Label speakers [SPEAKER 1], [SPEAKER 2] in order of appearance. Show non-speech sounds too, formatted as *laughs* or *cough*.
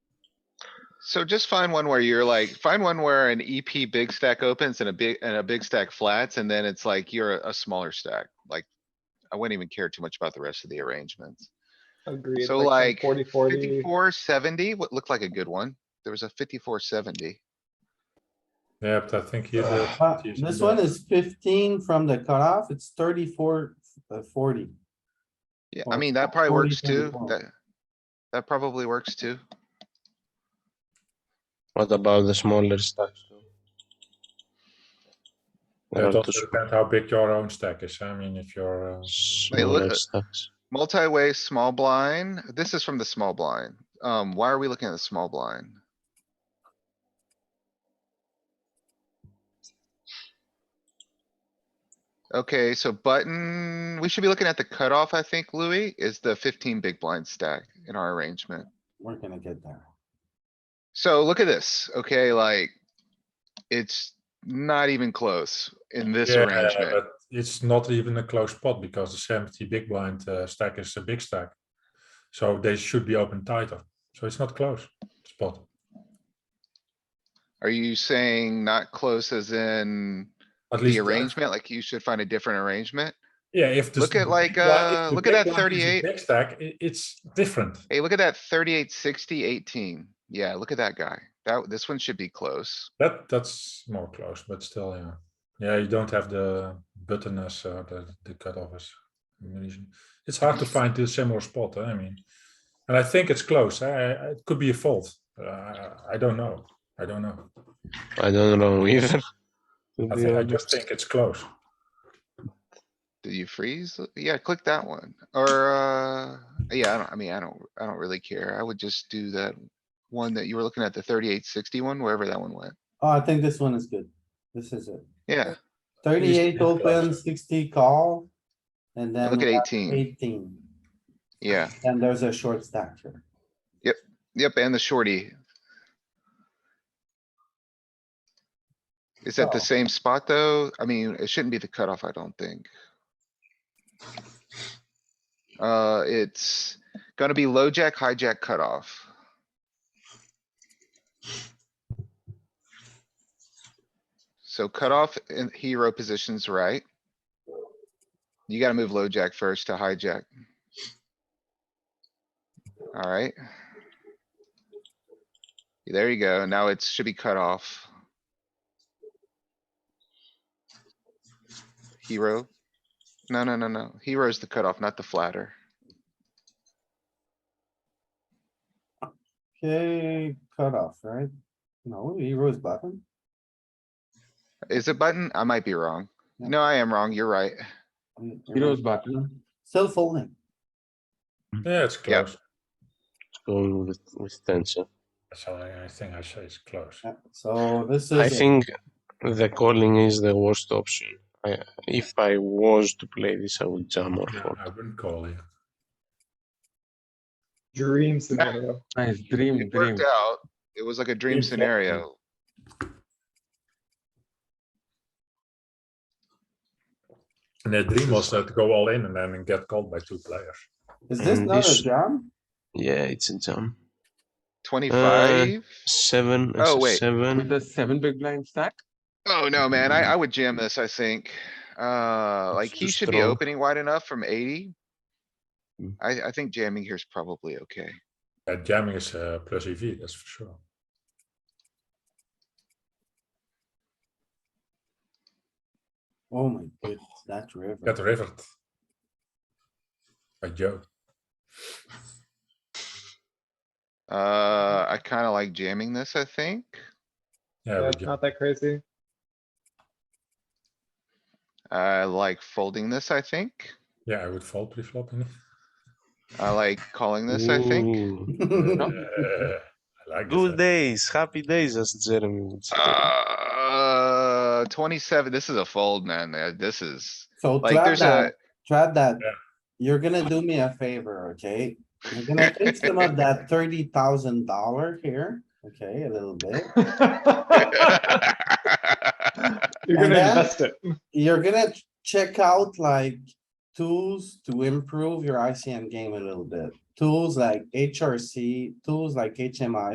[SPEAKER 1] So just find one where you're like, find one where an EP big stack opens and a big, and a big stack flats, and then it's like you're a- a smaller stack, like. I wouldn't even care too much about the rest of the arrangements.
[SPEAKER 2] Agreed.
[SPEAKER 1] So,
[SPEAKER 2] some
[SPEAKER 1] like,
[SPEAKER 2] Forty, forty,
[SPEAKER 1] Fifty-four seventy, what looked like a good one. There was a fifty-four seventy.
[SPEAKER 3] Yeah, but I think he's.
[SPEAKER 4] Uh, This one is fifteen from the cutoff, it's thirty-four, uh, forty.
[SPEAKER 1] Yeah, I
[SPEAKER 4] Well,
[SPEAKER 1] mean, that probably
[SPEAKER 4] 40,
[SPEAKER 1] works too.
[SPEAKER 4] 24.
[SPEAKER 1] That, that probably works too.
[SPEAKER 5] What about the smaller stacks? though? They're
[SPEAKER 3] It
[SPEAKER 5] not
[SPEAKER 3] also
[SPEAKER 5] too
[SPEAKER 3] depends how big your own stack is. I mean, if you're. Uh,
[SPEAKER 5] small,
[SPEAKER 1] Wait, look-
[SPEAKER 5] smaller stacks.
[SPEAKER 1] Multi-way, small blind. This is from the small blind. Um, why are we looking at the small blind? Okay, so button, we should be looking at the cutoff, I think, Louis, is the fifteen big blind stack in our arrangement.
[SPEAKER 4] We're gonna get there.
[SPEAKER 1] So look at this, okay, like, it's not even close in this
[SPEAKER 3] yeah,
[SPEAKER 1] arrangement.
[SPEAKER 3] but it's not even a close pot because the 70 big blind uh, stack is a big stack. So they should be open tighter. So it's not close spot.
[SPEAKER 1] Are you saying not close as in
[SPEAKER 3] At least
[SPEAKER 1] the
[SPEAKER 3] uh,
[SPEAKER 1] arrangement, like you should find a different arrangement?
[SPEAKER 3] Yeah, if the
[SPEAKER 1] Look
[SPEAKER 3] s-
[SPEAKER 1] at like,
[SPEAKER 3] big blind- if
[SPEAKER 1] uh,
[SPEAKER 3] the
[SPEAKER 1] look at
[SPEAKER 3] big
[SPEAKER 1] that
[SPEAKER 3] blind is a
[SPEAKER 1] 38.
[SPEAKER 3] Big stack, i- it's different.
[SPEAKER 1] Hey, look at that thirty-eight, sixty, eighteen. Yeah, look at that guy. That, this one should be close.
[SPEAKER 3] That that's more close, but still, yeah, yeah. You don't have the button as uh, the the cutoff is. amazing. It's hard to find a similar spot. Huh? I mean, and I think it's close. I, I- it could be a fault. Uh, I- I don't know. I don't know.
[SPEAKER 5] I don't know *laughs* either. to
[SPEAKER 3] I,
[SPEAKER 5] be
[SPEAKER 3] think, I
[SPEAKER 5] honest.
[SPEAKER 3] just think it's close.
[SPEAKER 1] Did you freeze? Yeah, click that one. Or, uh, yeah, I don't, I mean, I don't, I don't really care. I would just do that one that you were looking at, the thirty-eight, sixty one, wherever that one went.
[SPEAKER 4] Oh, I think this one is good. This is it.
[SPEAKER 1] Yeah,
[SPEAKER 4] Thirty-eight
[SPEAKER 3] Yeah.
[SPEAKER 4] open, sixty call.
[SPEAKER 1] and
[SPEAKER 4] And then
[SPEAKER 1] look at
[SPEAKER 4] we have
[SPEAKER 1] eighteen.
[SPEAKER 4] eighteen,
[SPEAKER 1] Yeah,
[SPEAKER 4] and there's a short stack here.
[SPEAKER 1] yep, and the shorty. Is that the
[SPEAKER 4] So-
[SPEAKER 1] same spot though? I mean, it shouldn't be the cutoff, I don't think. Uh, it's gonna be low jack, hijack cutoff. So cutoff in hero positions, right? You gotta move low jack first to hijack. Alright. There you go. Now it should be cut off. Hero. No, no, no, no. Hero's the cutoff, not the flatter.
[SPEAKER 4] Okay, cutoff, right? No, heroes button.
[SPEAKER 1] Is it button? I might be wrong.
[SPEAKER 4] No.
[SPEAKER 1] No, I am wrong. You're right.
[SPEAKER 4] Heroes button. Still folding.
[SPEAKER 3] Yeah, it's
[SPEAKER 1] Yeah.
[SPEAKER 3] close.
[SPEAKER 5] Going with with tension.
[SPEAKER 3] So I, I think I say it's close.
[SPEAKER 4] Yeah, So this is.
[SPEAKER 5] I
[SPEAKER 4] it.
[SPEAKER 5] think the calling is the worst option. I, if I was to play this, I would jam or
[SPEAKER 3] Yeah,
[SPEAKER 5] fold.
[SPEAKER 3] I wouldn't call it.
[SPEAKER 2] dream scenario.
[SPEAKER 6] Nice dream,
[SPEAKER 1] It worked
[SPEAKER 6] dream.
[SPEAKER 1] out. It was like a dream
[SPEAKER 3] Dream fold.
[SPEAKER 1] scenario.
[SPEAKER 3] And the dream was uh, to go all in and then get called by two players.
[SPEAKER 4] Is this
[SPEAKER 5] Mm,
[SPEAKER 4] not a
[SPEAKER 5] this-
[SPEAKER 4] jam?
[SPEAKER 5] Yeah, it's a jam.
[SPEAKER 1] Twenty-five?
[SPEAKER 5] Seven.
[SPEAKER 1] Oh,
[SPEAKER 5] is a
[SPEAKER 1] wait.
[SPEAKER 5] Seven.
[SPEAKER 6] With the seven big blind stack,
[SPEAKER 1] Oh, no, man. I, I would jam this, I think. Uh,
[SPEAKER 5] It's
[SPEAKER 1] like he
[SPEAKER 5] too
[SPEAKER 1] should be
[SPEAKER 5] strong.
[SPEAKER 1] opening wide enough from eighty.
[SPEAKER 5] Mm.
[SPEAKER 1] I, I think jamming here is probably okay.
[SPEAKER 3] Yeah, jamming is uh, plus EV. That's for sure.
[SPEAKER 4] Oh my goodness, that river.
[SPEAKER 3] Get
[SPEAKER 4] *laughs*
[SPEAKER 3] rivered. By Joe.
[SPEAKER 1] Uh, I kinda like jamming this, I think.
[SPEAKER 3] Yeah,
[SPEAKER 2] Yeah,
[SPEAKER 3] but
[SPEAKER 2] it's not
[SPEAKER 1] *laughs*
[SPEAKER 2] that crazy. *laughs*
[SPEAKER 1] I like folding this, I think.
[SPEAKER 3] yeah, I would fold pre-flopping.
[SPEAKER 1] I like calling this, I think.
[SPEAKER 5] Ooh.
[SPEAKER 3] Uh, *laughs* I like
[SPEAKER 5] Good
[SPEAKER 3] this.
[SPEAKER 5] days, happy days, as Jeremy would say.
[SPEAKER 1] Ah. Uh, twenty-seven, this is a fold, man. Uh, This is,
[SPEAKER 4] So
[SPEAKER 1] like,
[SPEAKER 4] trap
[SPEAKER 1] there's
[SPEAKER 4] that, trap that.
[SPEAKER 3] Yeah.
[SPEAKER 4] You're gonna do me a favor, okay? You're gonna fix some of that thirty thousand dollar here, okay, a little bit.
[SPEAKER 1] *laughs*
[SPEAKER 2] You're
[SPEAKER 4] And
[SPEAKER 2] gonna
[SPEAKER 4] then-
[SPEAKER 2] invest it.
[SPEAKER 4] You're gonna ch- check out like tools to improve your ICM game a little bit. Tools like HRC, tools like HMI,